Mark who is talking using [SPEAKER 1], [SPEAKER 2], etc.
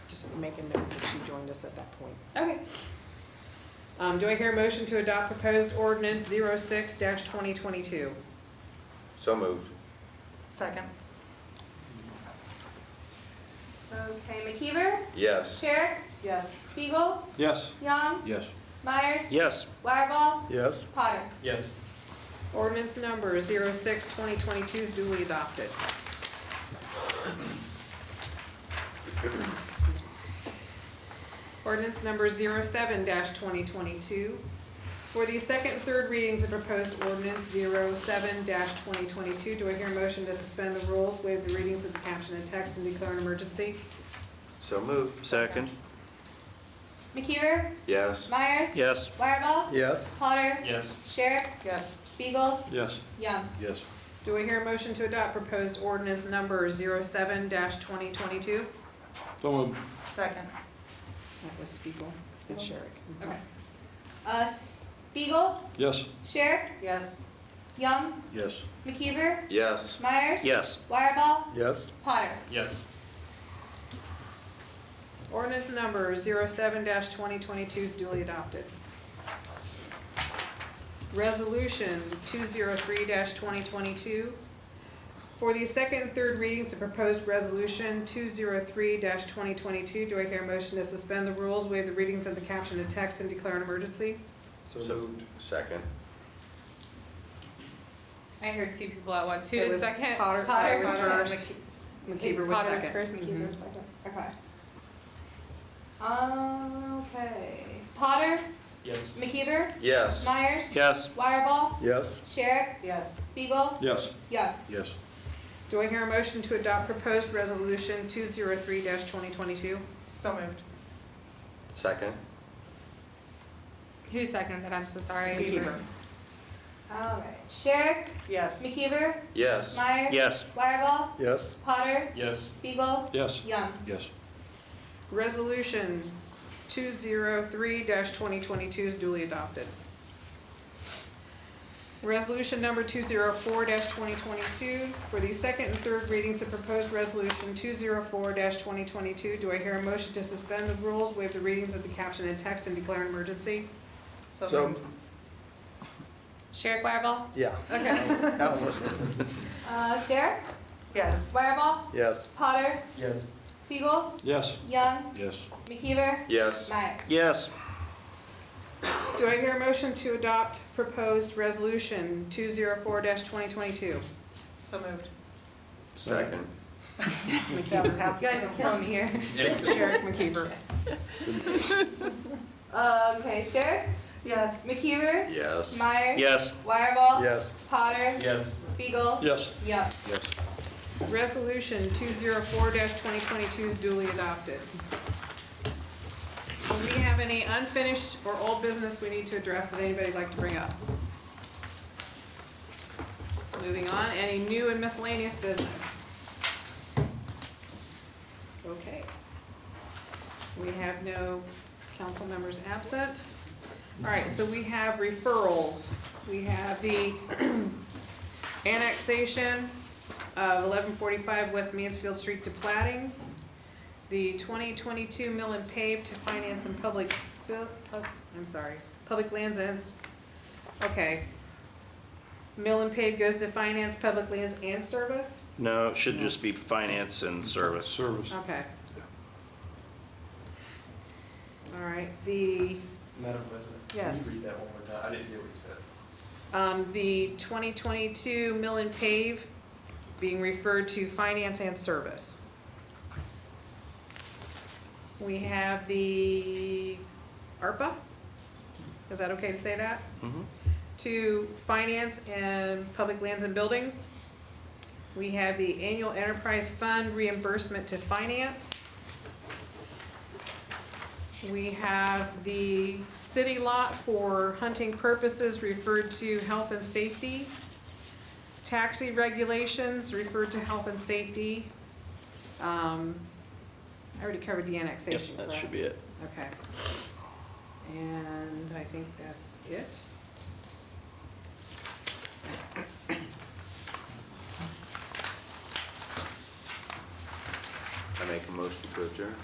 [SPEAKER 1] just make a note that she joined us at that point.
[SPEAKER 2] Okay.
[SPEAKER 1] Um, do I hear a motion to adopt proposed ordinance 6 twenty twenty-two?
[SPEAKER 3] So moved.
[SPEAKER 4] Second.
[SPEAKER 2] Okay, McKeever,
[SPEAKER 3] Yes.
[SPEAKER 2] Sherrick,
[SPEAKER 4] Yes.
[SPEAKER 2] Spiegel,
[SPEAKER 5] Yes.
[SPEAKER 2] Young,
[SPEAKER 5] Yes.
[SPEAKER 2] Myers,
[SPEAKER 5] Yes.
[SPEAKER 2] Wireball,
[SPEAKER 5] Yes.
[SPEAKER 2] Potter.
[SPEAKER 5] Yes.
[SPEAKER 1] Ordinance number 6 twenty twenty-two is duly adopted. Ordinance number 7 twenty twenty-two. For the second and third readings of proposed ordinance 7 twenty twenty-two, do I hear a motion to suspend the rules, waive the readings of the caption and text, and declare an emergency?
[SPEAKER 3] So moved.
[SPEAKER 5] Second.
[SPEAKER 2] McKeever,
[SPEAKER 3] Yes.
[SPEAKER 2] Myers,
[SPEAKER 5] Yes.
[SPEAKER 2] Wireball,
[SPEAKER 5] Yes.
[SPEAKER 2] Potter,
[SPEAKER 5] Yes.
[SPEAKER 2] Sherrick,
[SPEAKER 4] Yes.
[SPEAKER 2] Spiegel,
[SPEAKER 5] Yes.
[SPEAKER 2] Young.
[SPEAKER 5] Yes.
[SPEAKER 1] Do I hear a motion to adopt proposed ordinance number 7 twenty twenty-two?
[SPEAKER 5] So moved.
[SPEAKER 4] Second.
[SPEAKER 1] That was Spiegel, it's been Sherrick.
[SPEAKER 2] Okay. Uh, Spiegel,
[SPEAKER 5] Yes.
[SPEAKER 2] Sherrick,
[SPEAKER 4] Yes.
[SPEAKER 2] Young,
[SPEAKER 5] Yes.
[SPEAKER 2] McKeever,
[SPEAKER 3] Yes.
[SPEAKER 2] Myers,
[SPEAKER 5] Yes.
[SPEAKER 2] Wireball,
[SPEAKER 5] Yes.
[SPEAKER 2] Potter.
[SPEAKER 5] Yes.
[SPEAKER 1] Ordinance number 7 twenty twenty-two is duly adopted. Resolution two zero three twenty twenty-two. For the second and third readings of proposed resolution two zero three twenty twenty-two, do I hear a motion to suspend the rules, waive the readings of the caption and text, and declare an emergency?
[SPEAKER 3] So moved. Second.
[SPEAKER 6] I heard two people at once. Who
[SPEAKER 1] It
[SPEAKER 6] did
[SPEAKER 1] was
[SPEAKER 6] second?
[SPEAKER 1] Potter, Potter was first.
[SPEAKER 6] Potter
[SPEAKER 1] McKeever was
[SPEAKER 6] was
[SPEAKER 1] second.
[SPEAKER 6] first, McKeever was second. Mm-hmm.
[SPEAKER 2] Okay. Okay. Potter,
[SPEAKER 5] Yes.
[SPEAKER 2] McKeever,
[SPEAKER 3] Yes.
[SPEAKER 2] Myers,
[SPEAKER 5] Yes.
[SPEAKER 2] Wireball,
[SPEAKER 5] Yes.
[SPEAKER 2] Sherrick,
[SPEAKER 4] Yes.
[SPEAKER 2] Spiegel,
[SPEAKER 5] Yes.
[SPEAKER 2] Young.
[SPEAKER 5] Yes.
[SPEAKER 1] Do I hear a motion to adopt proposed resolution two zero three twenty twenty-two?
[SPEAKER 4] So moved.
[SPEAKER 3] Second.
[SPEAKER 6] Who seconded that? I'm so sorry.
[SPEAKER 2] All right. Sherrick,
[SPEAKER 4] Yes.
[SPEAKER 2] McKeever,
[SPEAKER 3] Yes.
[SPEAKER 2] Myers,
[SPEAKER 5] Yes.
[SPEAKER 2] Wireball,
[SPEAKER 5] Yes.
[SPEAKER 2] Potter,
[SPEAKER 5] Yes.
[SPEAKER 2] Spiegel,
[SPEAKER 5] Yes.
[SPEAKER 2] Young.
[SPEAKER 5] Yes.
[SPEAKER 1] Resolution two zero three twenty twenty-two is duly adopted. Resolution number two zero four twenty twenty-two, for the second and third readings of proposed resolution two zero four twenty twenty-two, do I hear a motion to suspend the rules, waive the readings of the caption and text, and declare an emergency?
[SPEAKER 4] So moved.
[SPEAKER 6] Sherrick Wireball?
[SPEAKER 5] Yeah.
[SPEAKER 6] Okay.
[SPEAKER 2] Uh, Sherrick,
[SPEAKER 4] Yes.
[SPEAKER 2] Wireball,
[SPEAKER 5] Yes.
[SPEAKER 2] Potter,
[SPEAKER 5] Yes.
[SPEAKER 2] Spiegel,
[SPEAKER 5] Yes.
[SPEAKER 2] Young,
[SPEAKER 5] Yes.
[SPEAKER 2] McKeever,
[SPEAKER 3] Yes.
[SPEAKER 2] Myers.
[SPEAKER 5] Yes.
[SPEAKER 1] Do I hear a motion to adopt proposed resolution two zero four twenty twenty-two?
[SPEAKER 4] So moved.
[SPEAKER 3] Second.
[SPEAKER 4] That was half.
[SPEAKER 6] You guys are killing me here.
[SPEAKER 1] Sherrick McKeever.
[SPEAKER 2] Okay, Sherrick,
[SPEAKER 4] Yes.
[SPEAKER 2] McKeever,
[SPEAKER 3] Yes.
[SPEAKER 2] Myers,
[SPEAKER 5] Yes.
[SPEAKER 2] Wireball,
[SPEAKER 5] Yes.
[SPEAKER 2] Potter,
[SPEAKER 5] Yes.
[SPEAKER 2] Spiegel,
[SPEAKER 5] Yes.
[SPEAKER 2] Young.
[SPEAKER 5] Yes.
[SPEAKER 1] Resolution two zero four twenty twenty-two is duly adopted. Do we have any unfinished or old business we need to address that anybody'd like to bring up? Moving on, any new and miscellaneous business? Okay. We have no council members absent. All right, so we have referrals. We have the annexation of eleven forty-five West Mansfield Street to plating, the twenty twenty-two mill and pave to finance and public, bu- pub- I'm sorry, public lands ends, okay. Mill and pave goes to finance, public lands and service,
[SPEAKER 7] No, it should just be finance and service.
[SPEAKER 5] Service.
[SPEAKER 1] okay. All right, the
[SPEAKER 8] Madam President?
[SPEAKER 1] Yes.
[SPEAKER 8] Can you read that one more time? I didn't hear what you said.
[SPEAKER 1] Um, the 2022 mill and pave being referred to finance and service. We have the ARPA, is that okay to say that?
[SPEAKER 7] Mhm.
[SPEAKER 1] To finance and public lands and buildings. We have the annual enterprise fund reimbursement to finance. We have the city lot for hunting purposes referred to health and safety. Taxi regulations referred to health and safety. Um, I already covered the annexation,
[SPEAKER 7] That should
[SPEAKER 1] correct?
[SPEAKER 7] be it.
[SPEAKER 1] Okay. And I think that's it.